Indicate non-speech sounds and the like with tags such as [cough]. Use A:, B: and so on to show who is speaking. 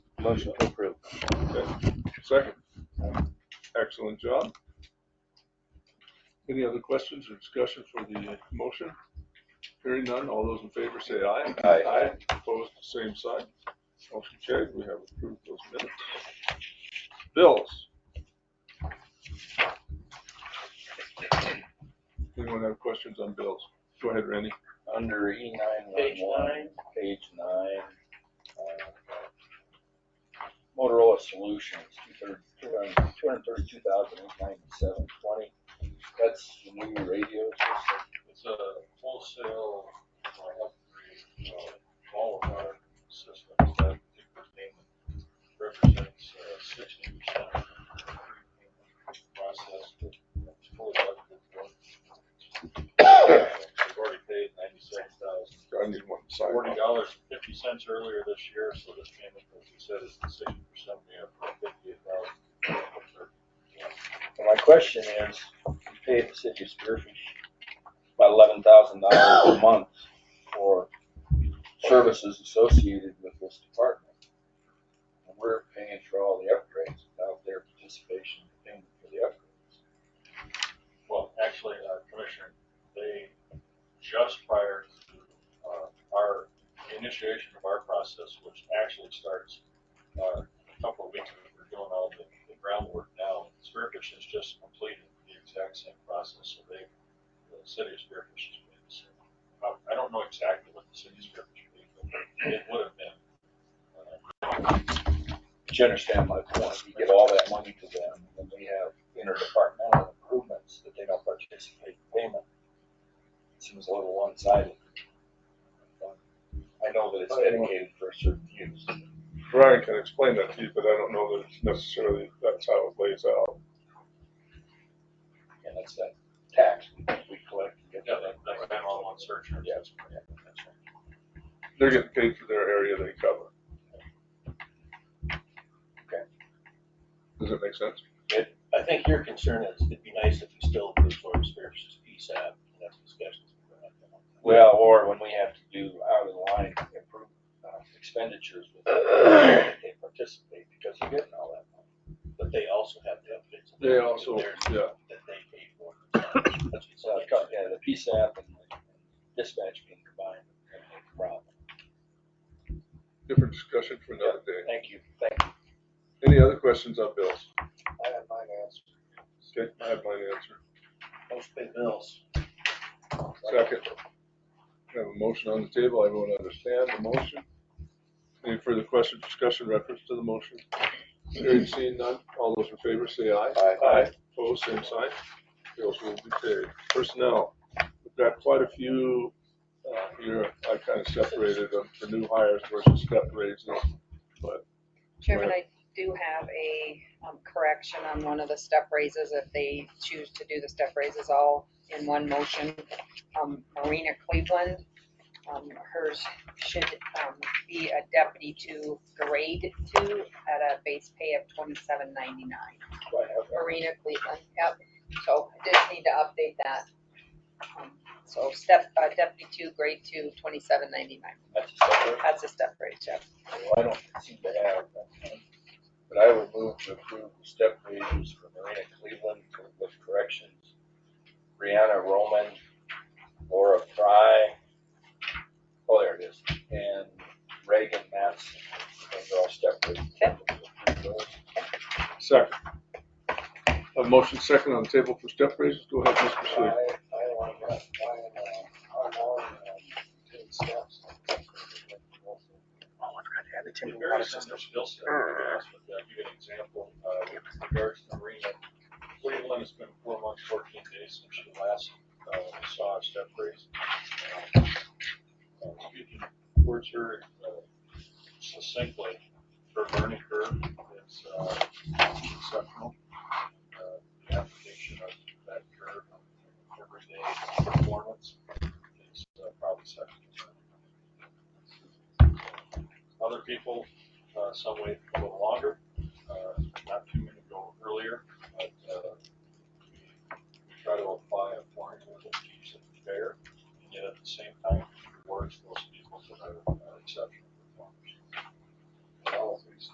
A: Motion to approve.
B: Second. Excellent job. Any other questions or discussion for the motion? Hearing none, all those in favor say aye.
A: Aye.
B: Aye, opposed, same sign. Motion carried, we have approved those minutes. Bills. Anyone have questions on bills? Go ahead, Randy.
A: Under E nine
C: Page
A: one one,
C: nine.
A: page nine. uh, Motorola Solutions, two hundred, two hundred, two hundred thirty-two thousand eight ninety-seven twenty. That's the new radio system.
C: It's a wholesale uh, upgrade of all of our systems. That particular payment represents uh, sixty percent of the prepayment process. It's fully budgeted. [coughs] We've already paid ninety-seven thousand,
B: I need one signed.
C: forty dollars, fifty cents earlier this year, so this payment, as you said, is the sixty percent. We have fifty-eight thousand.
A: And my question is, we pay the city of Spearfish about eleven thousand dollars a month for services associated with this department. And we're paying for all the upgrades without their participation in paying for the upgrades.
C: Well, actually, uh, Commissioner, they, just prior to, uh, our initiation of our process, which actually starts, uh, a couple of weeks, ago, we're doing all the the groundwork now. Spearfish has just completed the exact same process, so they, the city of Spearfish has made the same. I, I don't know exactly what the city of Spearfish paid, but it would have been. uh,
A: But you understand my point, we give all that money to them, and we have interdepartmental improvements that they don't participate in payment. Seems a little one-sided. I know that it's dedicated for a certain use.
B: Brian can explain that to you, but I don't know that it's necessarily that's how it lays out.
A: And that's that tax we we collect. and get
C: Yeah,
A: that.
C: that, that's been all on search. and-
A: Yeah.
C: That's right.
B: They're getting paid for their area they cover.
A: Okay.
B: Does that make sense?
D: I think your concern is it'd be nice if you still approved Florida Spearfish's PSAP, and that's discussions. we're gonna have.
A: Well, or when we have to do out of the line improve uh, expenditures with, they participate because they're getting all that money.
D: But they also have the updates.
B: They also,
D: That they're-
B: yeah.
D: That they paid for.
A: So I've got, yeah, the PSAP and the dispatch being combined, and the problem.
B: Different discussion for another day.
A: Thank you, thank you.
B: Any other questions on bills?
A: I have my answer.
B: Okay, I have mine answered.
D: Most pay bills.
B: Second. I have a motion on the table. Everyone understand the motion? Any further questions, discussion, reference to the motion? Hearing seen none, all those in favor say aye.
A: Aye.
B: Opposed, same sign. Bills will be paid. Personnel, we've got quite a few, uh, here, I kind of separated them, the new hires versus step raises. But
E: Chairman, I do have a um, correction on one of the step raises, if they choose to do the step raises all in one motion. Um, Marina Cleveland, um, hers should um, be a deputy to grade two at a base pay of twenty-seven ninety-nine. Marina Cleveland, yep, so I just need to update that. Um, So step, uh, deputy two, grade two, twenty-seven ninety-nine,
A: That's a separate,
E: that's a step raise, yep.
A: well, I don't seem to have that. one. But I would move to approve the step raises for Marina Cleveland for- with corrections. Brianna Roman, Laura Fry, oh, there it is, and Reagan Matson. Those are all step raises.
B: second. A motion second on the table for step raises. Go ahead, Mr.
D: I,
B: Sweet.
D: I want to, I, I'm on, um, ten steps.
C: It varies on the skill set. I'll give you an example, uh, with regards to Marina, Cleveland has been four months, fourteen days since she last, uh, saw a step raise. Uh, Speaking towards her uh, succinctly, her learning curve is, uh, exceptional. Uh, The application of that curve, on everyday performance is uh, probably second to none other people, uh, some way Uh, uh,